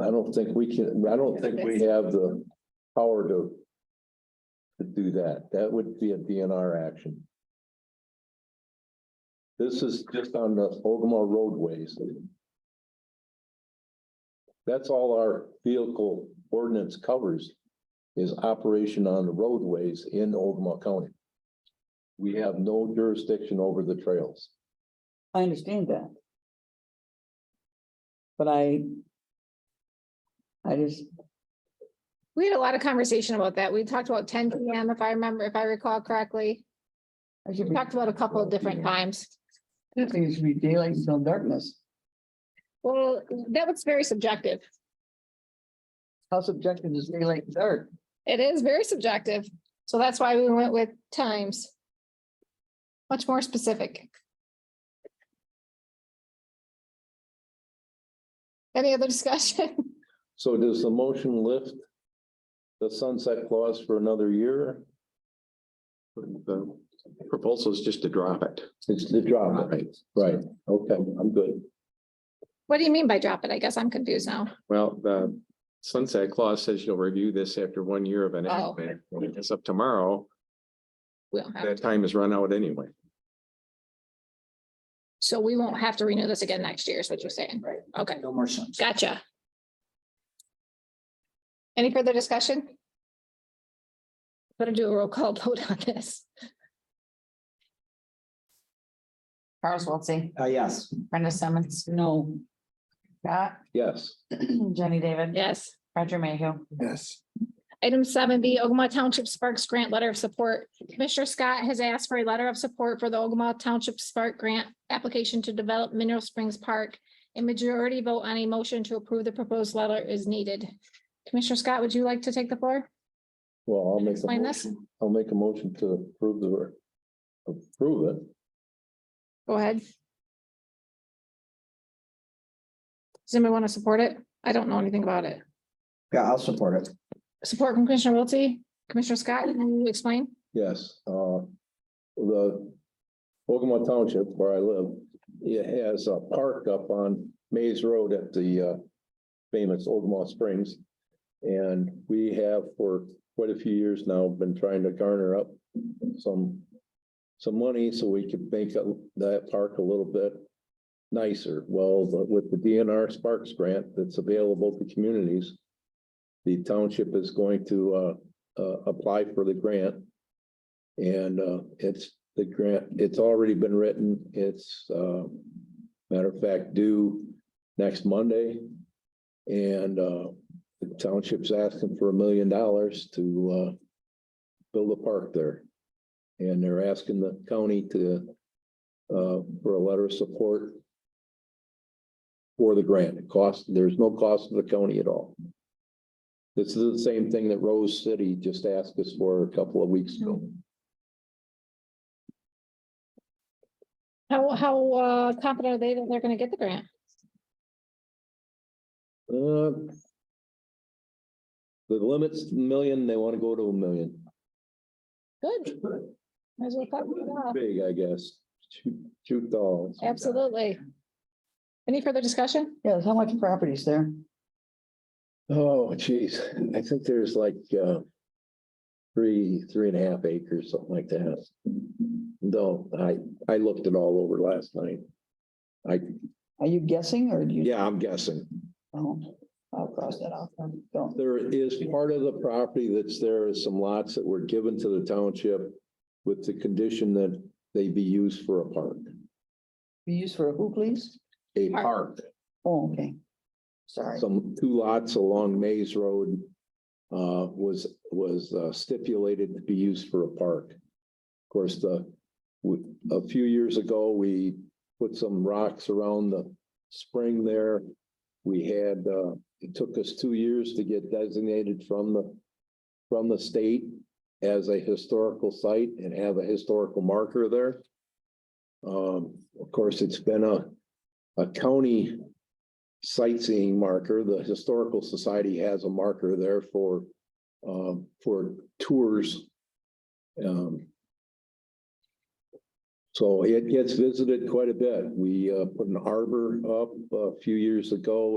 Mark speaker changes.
Speaker 1: I don't think we can, I don't think we have the power to. To do that, that would be a DNR action. This is just on the Ogama roadways. That's all our vehicle ordinance covers is operation on the roadways in Ogama County. We have no jurisdiction over the trails.
Speaker 2: I understand that. But I. I just,
Speaker 3: We had a lot of conversation about that. We talked about ten PM, if I remember, if I recall correctly.
Speaker 2: I should
Speaker 3: We
Speaker 2: be,
Speaker 3: talked about a couple of different times.
Speaker 2: I think it should be daylight until darkness.
Speaker 3: Well, that was very subjective.
Speaker 2: How subjective is daylight and dark?
Speaker 3: It is very subjective. So that's why we went with times. Much more specific. Any other discussion?
Speaker 1: So does the motion lift the sunset clause for another year?
Speaker 4: The proposal is just to drop it.
Speaker 1: It's the drop,
Speaker 4: Right.
Speaker 1: right, okay, I'm good.
Speaker 3: What do you mean by drop it? I guess I'm confused now.
Speaker 4: Well, the sunset clause says you'll review this after one year of enactment. When it gets up tomorrow,
Speaker 3: We don't have,
Speaker 4: that time is run out anyway.
Speaker 3: so we won't have to renew this again next year is what you're saying.
Speaker 2: Right.
Speaker 3: Okay,
Speaker 2: No more sense.
Speaker 3: gotcha. Any further discussion? Better do a roll call vote on this.
Speaker 5: Charles Wiltie,
Speaker 6: Uh, yes,
Speaker 5: Brenda Simmons,
Speaker 2: No,
Speaker 5: Scott,
Speaker 1: Yes,
Speaker 5: Jenny David.
Speaker 3: Yes.
Speaker 5: Roger Mayhew.
Speaker 6: yes,
Speaker 3: Item seven B, Ogama Township Sparks Grant Letter of Support. Commissioner Scott has asked for a letter of support for the Ogama Township Spark Grant application to develop Mineral Springs Park. A majority vote on a motion to approve the proposed letter is needed. Commissioner Scott, would you like to take the floor?
Speaker 1: well, I'll make a
Speaker 3: Explain this.
Speaker 1: motion, I'll make a motion to approve the. Approve it,
Speaker 3: Go ahead. Does anybody want to support it? I don't know anything about it.
Speaker 6: yeah, I'll support it.
Speaker 3: Support from Commissioner Wiltie. Commissioner Scott, can you explain?
Speaker 1: yes, uh, the. Ogama Township where I live, it has a park up on Maze Road at the, uh. Famous Ogama Springs. And we have for quite a few years now been trying to garner up some. Some money so we could make that park a little bit nicer. Well, but with the DNR Sparks grant that's available to communities. The township is going to uh, uh, apply for the grant. And uh, it's the grant, it's already been written. It's uh, matter of fact due next Monday. And uh, the township's asking for a million dollars to uh, build a park there. And they're asking the county to uh, for a letter of support for the grant. It costs, there's no cost to the county at all. This is the same thing that Rose City just asked us for a couple of weeks ago.
Speaker 3: How, how uh, confident are they that they're going to get the grant?
Speaker 1: Uh, The limit's million, they want to go to a million.
Speaker 3: Good. Might as well cut it off.
Speaker 1: Big, I guess. Shoot, shoot dolls.
Speaker 3: Absolutely. Any further discussion?
Speaker 2: yes, how much property is there?
Speaker 1: Oh, geez, I think there's like, uh, three, three and a half acres, something like that. No, I, I looked it all over last night. I,
Speaker 2: Are you guessing or do you?
Speaker 1: yeah, I'm guessing.
Speaker 2: Oh, I'll cross that off. Don't.
Speaker 1: There is part of the property that's there is some lots that were given to the township with the condition that they be used for a park,
Speaker 2: Be used for who, please?
Speaker 1: a park.
Speaker 2: Oh, okay. Sorry.
Speaker 1: Some two lots along Maze Road uh, was, was uh, stipulated to be used for a park. Of course, the, we- a few years ago, we put some rocks around the spring there. We had, uh, it took us two years to get designated from the, from the state as a historical site and have a historical marker there. Um, of course, it's been a, a county sightseeing marker. The Historical Society has a marker there for, um, for tours. Um, So it gets visited quite a bit. We, uh, put an arbor up a few years ago